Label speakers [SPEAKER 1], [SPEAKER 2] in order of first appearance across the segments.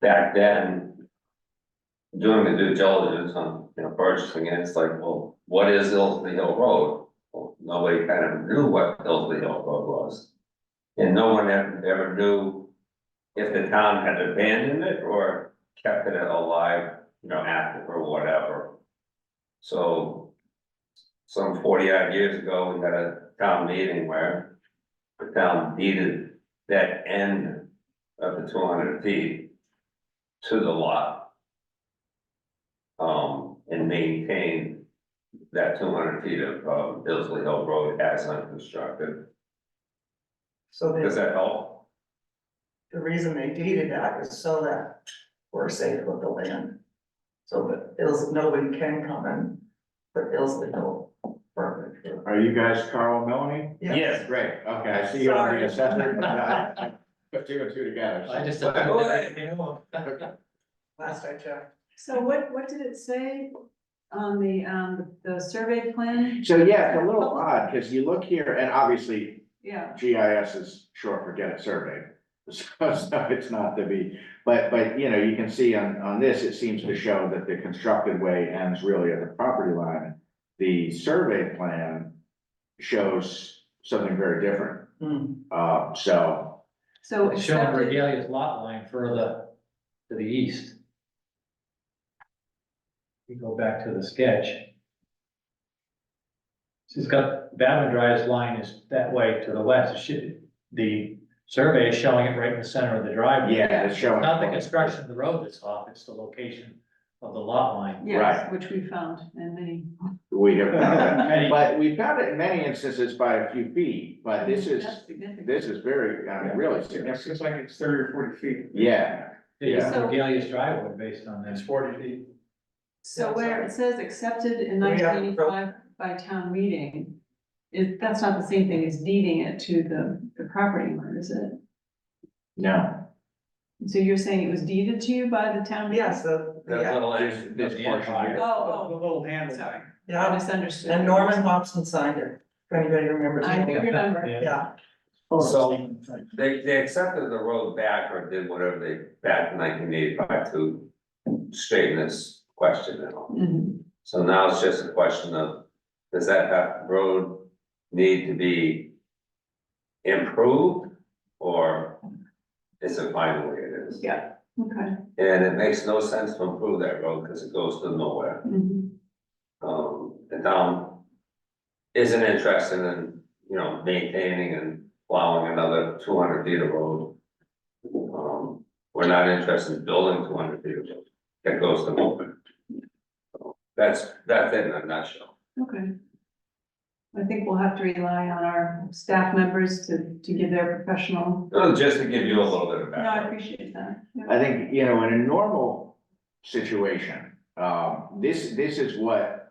[SPEAKER 1] back then, doing the due diligence on, you know, purchasing it, it's like, well, what is Hillsley Hill Road? Well, nobody kind of knew what Hillsley Hill Road was. And no one ever, ever knew if the town had abandoned it or kept it alive, you know, active or whatever. So some forty odd years ago, we had a town meeting where the town deeded that end of the two hundred feet to the lot. Um, and maintained that two hundred feet of, um, Billsley Hill Road as unconstructed.
[SPEAKER 2] So
[SPEAKER 1] Does
[SPEAKER 2] the,
[SPEAKER 1] that help?
[SPEAKER 2] the reason they deeded that is so that we're safe with the land. So that Ills, nobody can come in, but Ilsley Hill Road.
[SPEAKER 3] Are you guys Carl and Melanie? Great, okay, I see you on the assessor. but I- Put two and two together. so-
[SPEAKER 4] I just.
[SPEAKER 2] Last I checked,
[SPEAKER 5] So what, what did it say on the, um, the survey plan?
[SPEAKER 3] So yeah, it's a little odd, because you look here, and obviously
[SPEAKER 5] Yeah,
[SPEAKER 3] GIS is short for get it surveyed. So, so it's not to be, but, but, you know, you can see on, on this, it seems to show that the constructed way ends really at the property line. The survey plan shows something very different,
[SPEAKER 2] Hmm,
[SPEAKER 3] uh, so,
[SPEAKER 5] so
[SPEAKER 4] Showing
[SPEAKER 5] accepted,
[SPEAKER 4] Regalia's lot line further to the east. We go back to the sketch. She's got Bavin Drive's line is that way to the west, It should, the survey is showing it right in the center of the driveway.
[SPEAKER 3] yeah, it's showing.
[SPEAKER 4] Not the construction of the road that's off, it's the location of the lot line.
[SPEAKER 5] yes, which we found in many.
[SPEAKER 3] We have, found that.
[SPEAKER 4] Many-
[SPEAKER 3] But we found it in many instances by a few feet,
[SPEAKER 2] Uh,
[SPEAKER 3] but this is,
[SPEAKER 5] That's significant.
[SPEAKER 3] this is very, I mean, really
[SPEAKER 6] Yeah,
[SPEAKER 3] serious.
[SPEAKER 6] seems like it's thirty or forty feet.
[SPEAKER 3] Yeah,
[SPEAKER 4] It's
[SPEAKER 5] So-
[SPEAKER 4] Regalia's driveway based on
[SPEAKER 6] It's
[SPEAKER 4] this.
[SPEAKER 6] forty feet.
[SPEAKER 5] So where it says accepted in
[SPEAKER 2] We
[SPEAKER 5] nineteen
[SPEAKER 2] have-
[SPEAKER 5] eighty-five by town meeting, it, that's not the same thing as deeding it to the, the property owner, is it?
[SPEAKER 3] no,
[SPEAKER 5] So you're saying it was deeded to you by the town? meeting?
[SPEAKER 2] yeah, so,
[SPEAKER 1] That
[SPEAKER 2] yeah,
[SPEAKER 1] little
[SPEAKER 3] this,
[SPEAKER 1] end
[SPEAKER 3] this
[SPEAKER 1] of the
[SPEAKER 3] portion
[SPEAKER 4] empire.
[SPEAKER 3] here.
[SPEAKER 5] Oh,
[SPEAKER 6] The little
[SPEAKER 5] oh,
[SPEAKER 6] handle.
[SPEAKER 5] sorry, I
[SPEAKER 2] yeah,
[SPEAKER 5] misunderstood.
[SPEAKER 2] and Norman Hobson signed it, if anybody remembers.
[SPEAKER 5] I remember,
[SPEAKER 2] Yeah,
[SPEAKER 1] So they, they accepted the road back or did whatever they, back in nineteen eighty-five to straighten this question out.
[SPEAKER 5] Mhm.
[SPEAKER 1] So now it's just a question of, does that back road need to be improved? Or is it fine the way it is?
[SPEAKER 5] yeah, okay.
[SPEAKER 1] And it makes no sense to improve that road because it goes to nowhere.
[SPEAKER 5] Mhm.
[SPEAKER 1] Um, the town isn't interested in, you know, maintaining and plowing another two hundred feet of road. Um, we're not interested in building two hundred feet of road that goes to nowhere. So That's, that's it in a nutshell.
[SPEAKER 5] Okay. I think we'll have to rely on our staff members to, to give their professional,
[SPEAKER 1] Uh, Just to give you a little bit of
[SPEAKER 5] no, I
[SPEAKER 1] background.
[SPEAKER 5] appreciate that. yeah.
[SPEAKER 3] I think, you know, in a normal situation, um, this, this is what.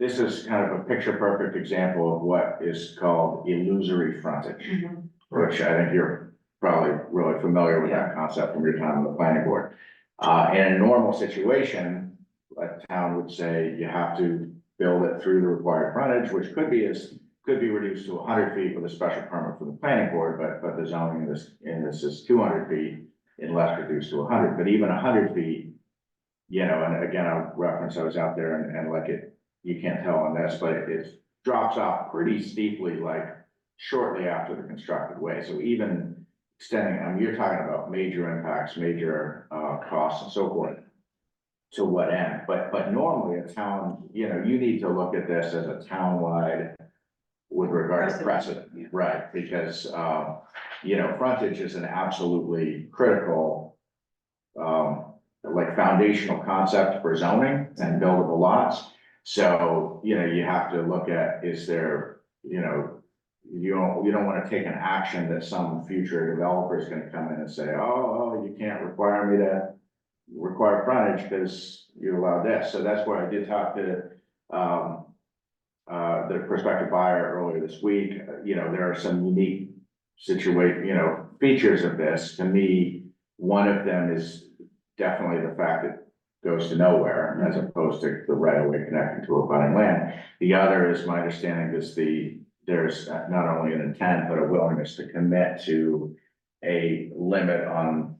[SPEAKER 3] This is kind of a picture perfect example of what is called illusory frontage.
[SPEAKER 5] Mhm.
[SPEAKER 3] which I think you're probably really familiar with that concept from your time on the planning board. Uh, in a normal situation, a town would say you have to build it through the required frontage, which could be as, could be reduced to hundred feet with a special permit from the planning board, but, but the zoning in this, in this is two hundred feet unless reduced to hundred, but even hundred feet, you know, and again, I'll reference, I was out there and, and like it, you can't tell on this, but it drops off pretty steeply, like shortly after the constructed way, so even extending, I mean, you're talking about major impacts, major uh costs and so forth. To what end, but but normally a town, you know, you need to look at this as a town-wide with regard to precedent,
[SPEAKER 5] Yeah.
[SPEAKER 3] right, because um, you know, frontage is an absolutely critical. Um, like foundational concept for zoning and buildable lots, so, you know, you have to look at, is there, you know, you don't, you don't wanna take an action that some future developer is gonna come in and say, oh, oh, you can't require me to require frontage because you allow this, so that's where I did talk to, um, uh, the prospective buyer earlier this week, Uh, you know, there are some unique situate, you know, features of this, to me, one of them is definitely the fact that it goes to nowhere, as opposed to the right of way connecting to abutting land. The other is, my understanding is the, there's not only an intent, but a willingness to commit to a limit on